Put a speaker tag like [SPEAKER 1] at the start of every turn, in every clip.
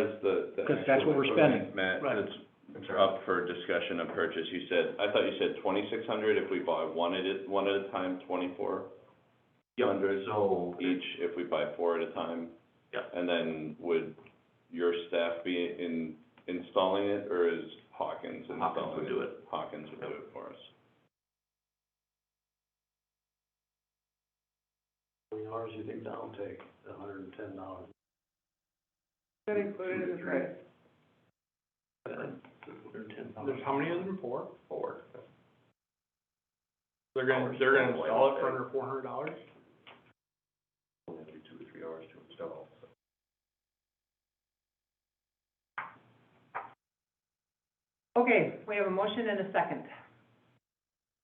[SPEAKER 1] is the, the.
[SPEAKER 2] 'Cause that's what we're
[SPEAKER 1] actual
[SPEAKER 2] spending.
[SPEAKER 1] equipment, Matt,
[SPEAKER 2] Right.
[SPEAKER 1] that's up for discussion of purchase, you said, I thought you said twenty-six hundred if we buy one at a, one at a time, twenty-four
[SPEAKER 3] Yeah,
[SPEAKER 1] hundred
[SPEAKER 3] so,
[SPEAKER 1] each if we buy four at a time?
[SPEAKER 3] Yeah.
[SPEAKER 1] And then would your staff be in, installing it, or is Hawkins installing it?
[SPEAKER 3] Hawkins would do it.
[SPEAKER 1] Hawkins would do it for us.
[SPEAKER 4] How many hours you think that'll take, the hundred and ten dollars?
[SPEAKER 5] That included in the price.
[SPEAKER 6] There's, how many of them, four?
[SPEAKER 3] Four.
[SPEAKER 6] They're gonna, they're gonna install it for under four hundred dollars?
[SPEAKER 3] Only have to be two or three hours to install.
[SPEAKER 5] Okay, we have a motion and a second.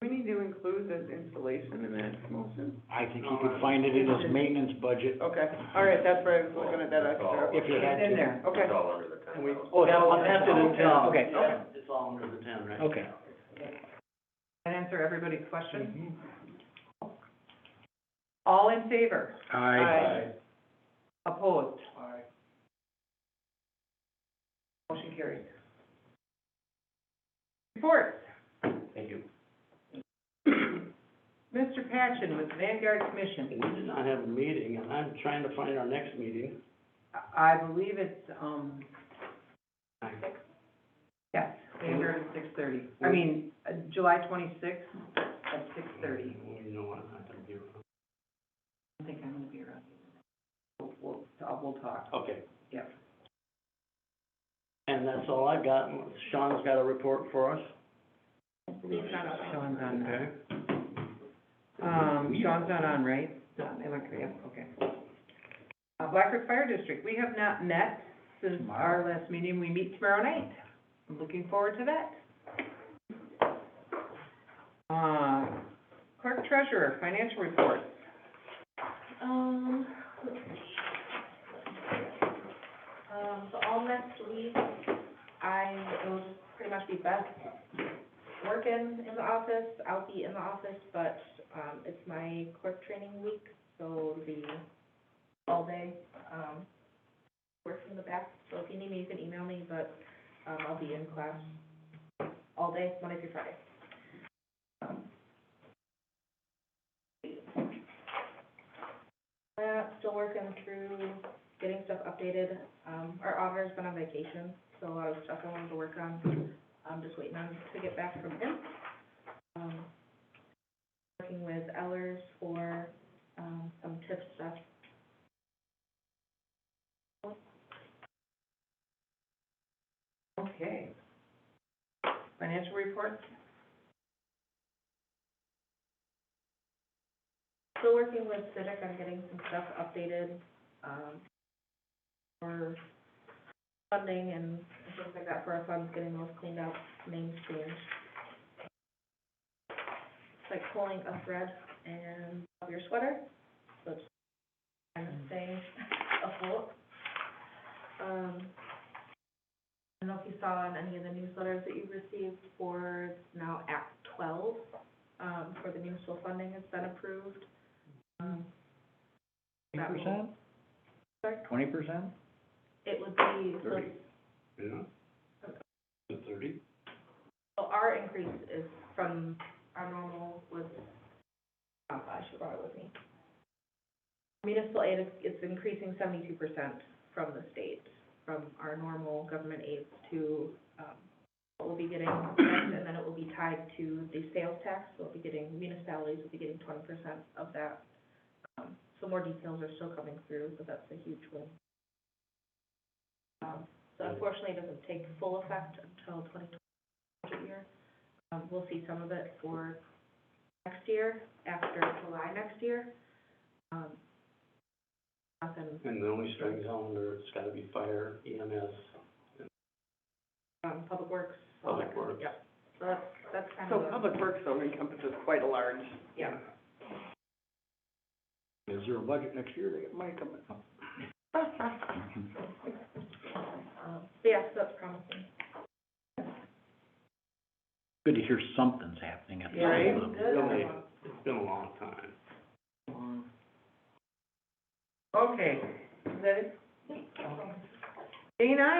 [SPEAKER 5] We need to include this installation in that motion.
[SPEAKER 2] I think you could find it in his maintenance budget
[SPEAKER 5] Okay, all right, that's where I was looking at that extra.
[SPEAKER 2] if you had
[SPEAKER 5] It's in
[SPEAKER 2] to.
[SPEAKER 5] there, okay.
[SPEAKER 3] It's all under the ten
[SPEAKER 2] And we-
[SPEAKER 3] thousand.
[SPEAKER 2] Oh, it's on after the ten, okay,
[SPEAKER 4] It's all under the ten, right?
[SPEAKER 2] okay.
[SPEAKER 5] That answer everybody's question? All in favor?
[SPEAKER 2] Aye.
[SPEAKER 5] Opposed? Motion carried. Reports.
[SPEAKER 4] Thank you.
[SPEAKER 5] Mr. Patchen with Vanguard Commission.
[SPEAKER 4] We did not have a meeting, and I'm trying to find our next meeting.
[SPEAKER 5] I I believe it's, um, yes, Vanguard at six thirty. I mean, uh, July twenty-sixth at six thirty.
[SPEAKER 4] You know what, I'm not gonna be around.
[SPEAKER 5] I think I'm gonna be around. We'll, we'll, we'll talk.
[SPEAKER 4] Okay.
[SPEAKER 5] Yep.
[SPEAKER 4] And that's all I got. Sean's got a report for us.
[SPEAKER 5] Sean's on that. Um, Sean's not on, right? No, they look, yeah, okay. Uh, Black Creek Fire District, we have not met since our last meeting. We meet tomorrow night. I'm looking forward to that. Uh, clerk treasurer, financial report.
[SPEAKER 7] Um, let's see. Um, so all next week, I will pretty much be back working in the office. I'll be in the office, but, um, it's my clerk training week, so it'll be all day, um, work from the back. So if you need me, you can email me, but, um, I'll be in class all day, Monday through Friday. Um, Uh, still working through getting stuff updated. Um, our auditor's been on vacation, so a lot of stuff I wanted to work on. I'm just waiting on to get back from him. Um, working with Ellers for, um, some tip stuff.
[SPEAKER 5] Okay. Financial report?
[SPEAKER 7] Still working with Civic on getting some stuff updated, um, for funding and things like that for our funds, getting those cleaned up, names changed. It's like pulling a thread and of your sweater, so it's kind of staying afloat. Um, I don't know if you saw on any of the newsletters that you received for now Act twelve, um, for the municipal funding has been approved. Um,
[SPEAKER 2] Twenty percent?
[SPEAKER 7] Sorry?
[SPEAKER 2] Twenty percent?
[SPEAKER 7] it would be, so
[SPEAKER 4] Thirty. Yeah? The thirty?
[SPEAKER 7] So our increase is from our normal was, oh, I should brought it with me. Municipal aid is, it's increasing seventy-two percent from the state, from our normal government aids to, um, what we'll be getting, next, and then it will be tied to the sales tax, so we'll be getting, municipalities will be getting twenty percent of that. Um, so more details are still coming through, but that's a huge win. Um, so unfortunately, it doesn't take full effect until twenty budget year. Um, we'll see some of it for next year, after July next year. Um, nothing,
[SPEAKER 4] And the only strings on there, it's gotta be fire, E EMS,
[SPEAKER 7] um, Public Works.
[SPEAKER 4] public works.
[SPEAKER 7] Yep, so that's, that's kind
[SPEAKER 5] So
[SPEAKER 7] of the.
[SPEAKER 5] Public Works zone encompasses quite a large.
[SPEAKER 7] Yeah,
[SPEAKER 2] Is there a budget next year that might come up?
[SPEAKER 7] um, so yeah, so that's promising.
[SPEAKER 2] Good to hear something's happening at the
[SPEAKER 5] Right.
[SPEAKER 2] level.
[SPEAKER 4] Really, it's been a long time.
[SPEAKER 5] Okay, is that it? Dana,